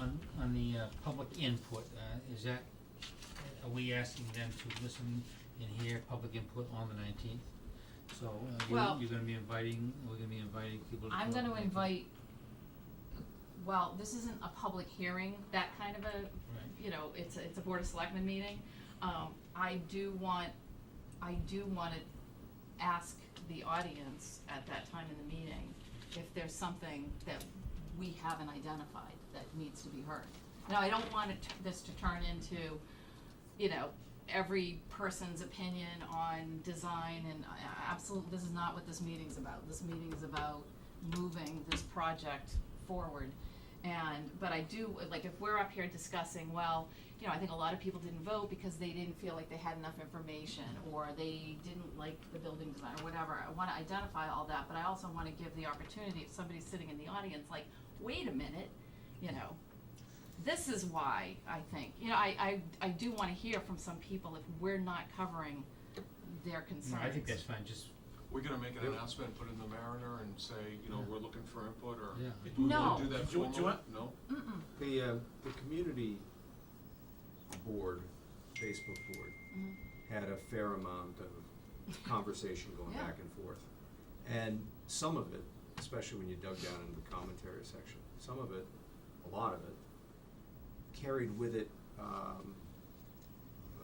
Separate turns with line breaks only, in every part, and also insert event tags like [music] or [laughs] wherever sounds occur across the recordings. On, on the uh, public input, uh, is that, are we asking them to listen and hear public input on the nineteenth? So, uh,
Well-
you, you're gonna be inviting, we're gonna be inviting people to. come
I'm
up
gonna
and-
invite, well, this isn't a public hearing, that kind of a,
Right,
you know, it's, a- it's a board of selectmen meeting. Um, I do want, I do wanna ask the audience at that time in the meeting if there's something that we haven't identified that needs to be heard. Now, I don't want it, t- this to turn into, you know, every person's opinion on design and absolutely, this is not what this meeting's about. This meeting is about moving this project forward. And, but I do, like, if we're up here discussing, well, you know, I think a lot of people didn't vote because they didn't feel like they had enough information or they didn't like the building design or whatever. I wanna identify all that, but I also wanna give the opportunity if somebody's sitting in the audience, like, wait a minute, you know, this is why I think, you know, I, I, I do wanna hear from some people if we're not covering their
no,
concerns.
I think that's fine, just,
We're gonna make an announcement, put it in the Mariner and say, you know,
Yeah.
we're looking for input or.
Yeah.
Do we wanna
No.
Do that
Do you- do you
formally?
want-
No?
Mm-mm, mm-hmm,
The, uh, the community board, Facebook board,
Mhm.
had a fair amount of conversation going
Yeah.
back and forth. And some of it, especially when you dug down into the commentary section, some of it, a lot of it, carried with it, um,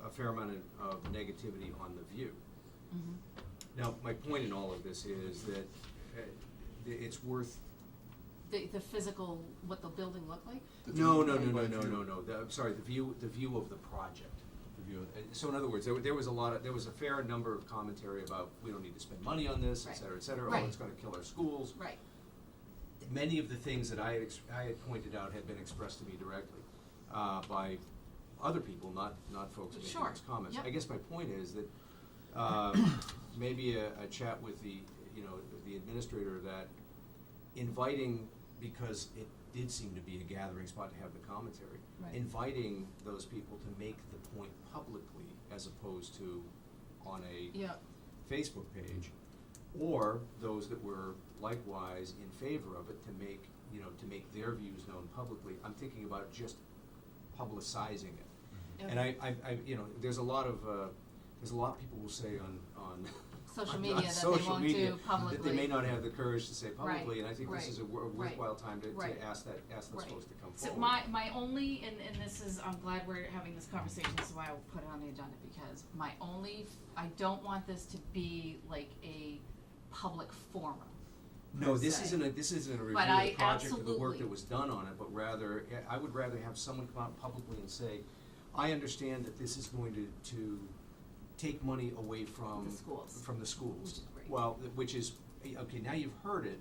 a fair amount of of negativity on the view.
mhm.
Now, my point in all of this is that, uh, it's worth
The, the physical, what the building looked like?
The
No,
view-
no, no,
by
no, no,
view.
no, no, The- I'm sorry, the view, the view of the project. The view of- and So in other words, there, wa- there was a lot of, there was a fair number of commentary about, we don't need to spend money on this, et
Right.
cetera, et cetera,
Right.
oh, it's gonna kill our schools.
Right.
Many of the things that I had, ex- I had pointed out had been expressed to me directly, uh, by other people, not, not folks making
Sure.
those comments.
Yep.
I guess my point is that,
[clears throat]
um, maybe a, a chat with the, you know, the administrator of that, inviting, because it did seem to be a gathering spot to have the commentary.
Right.
Inviting those people to make the point publicly as opposed to on a
Yeah,
Facebook page. Or those that were likewise in favor of it to make, you know, to make their views known publicly. I'm thinking about just publicizing it.
Mm-hmm.
And I, I, I, you know, there's a lot of, uh, there's a lot people will say on, on.
Social
[laughs] on-
media
on
that they
social
won't
media
do
That they
publicly.
may not have the courage to say
Right,
publicly, and I think this
right,
is a wor-
right,
worthwhile time to,
right,
to ask that, ask those
right.
folks to come forward.
So my, my only, and, and this is, I'm glad we're having this conversation, this is why I put it on the agenda, because my only, I don't want this to be like a public forum.
No,
per
this
se.
isn't a, this isn't a review
But
of
I
the project or the
absolutely-
work that was done on it, but rather, yeah, I would rather have someone come out publicly and say, I understand that this is going to, to take money away from.
The schools.
From the schools.
Which is great.
Well, th- which is, eh, okay, now you've heard it,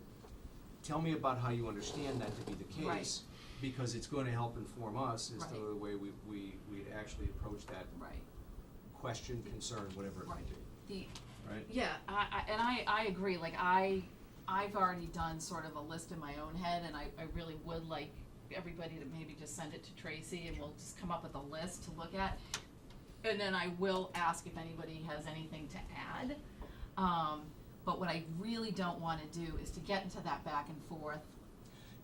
tell me about how you understand that to be the case.
Right.
Because it's gonna help inform us as to
Right.
the way we, we, we'd actually approach that
Right.
question, concern, whatever it might be,
The,
right?
yeah, I, I, and I, I agree, like, I, I've already done sort of a list in my own head, and I, I really would like everybody to maybe just send it to Tracy, and we'll just come up with a list to look at. And then I will ask if anybody has anything to add. Um, but what I really don't wanna do is to get into that back and forth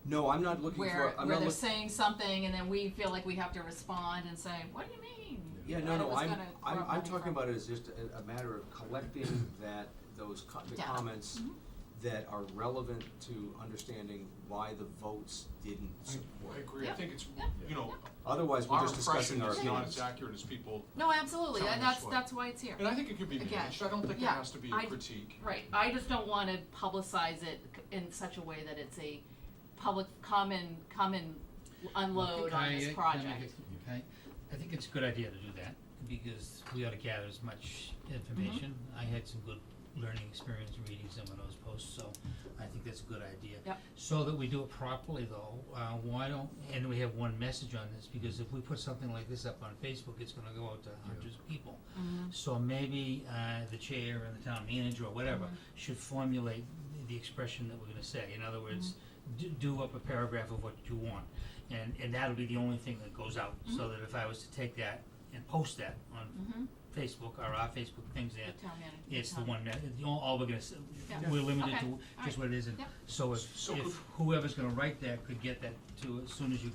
No, I'm not looking for,
where,
I'm
where
not
they're
looking.
saying something and then we feel like we have to respond and say, what do you mean?
Yeah,
I
no, no,
was
I'm,
gonna
I'm,
borrow
I'm
money
talking
from-
about it as just a, a matter of collecting that, those co- the
Data.
comments
Mhm.
that are relevant to understanding why the votes didn't support.
I agree, I
Yeah.
think it's,
Yeah.
you know,
Otherwise, we're
our
just discussing
impression
our
is
opinions.
not as accurate as people,
No, absolutely,
telling
and
us
that's,
what-
that's why it's here.
and I think it could be
Again,
managed, I don't think it
yeah,
has to be a
I-
critique.
Right, I just don't wanna publicize it c- in such a way that it's a public, common, common unload
Can
on
I, uh, can I
this
make
project.
it- can I- I think it's a good idea to do that, because we ought to gather as much information.
Mm-hmm.
I had some good learning experience reading some of those posts, so I think that's a good idea.
Yep.
So that we do it properly though, uh, why don't, and we have one message on this, because if we put something like this up on Facebook, it's gonna go out to hundreds of people.
Mhm.
So maybe uh the chair and the town manager or whatever
Mm-hmm.
should formulate the expression that we're gonna say. In other words,
Mm-hmm.
do do up a paragraph of what you want. And and that'll be the only thing that goes out,
Mm-hmm.
so that if I was to take that and post that on
Mhm.
Facebook or our Facebook things there,
The town manager.
it's the
town-
one that, the all, all we're gonna, s-
Yeah.
we're limited
Okay.
to
All
just
right.
what it is and
Yep.
so if
So
if
could-
whoever's gonna write that could get that to as soon as you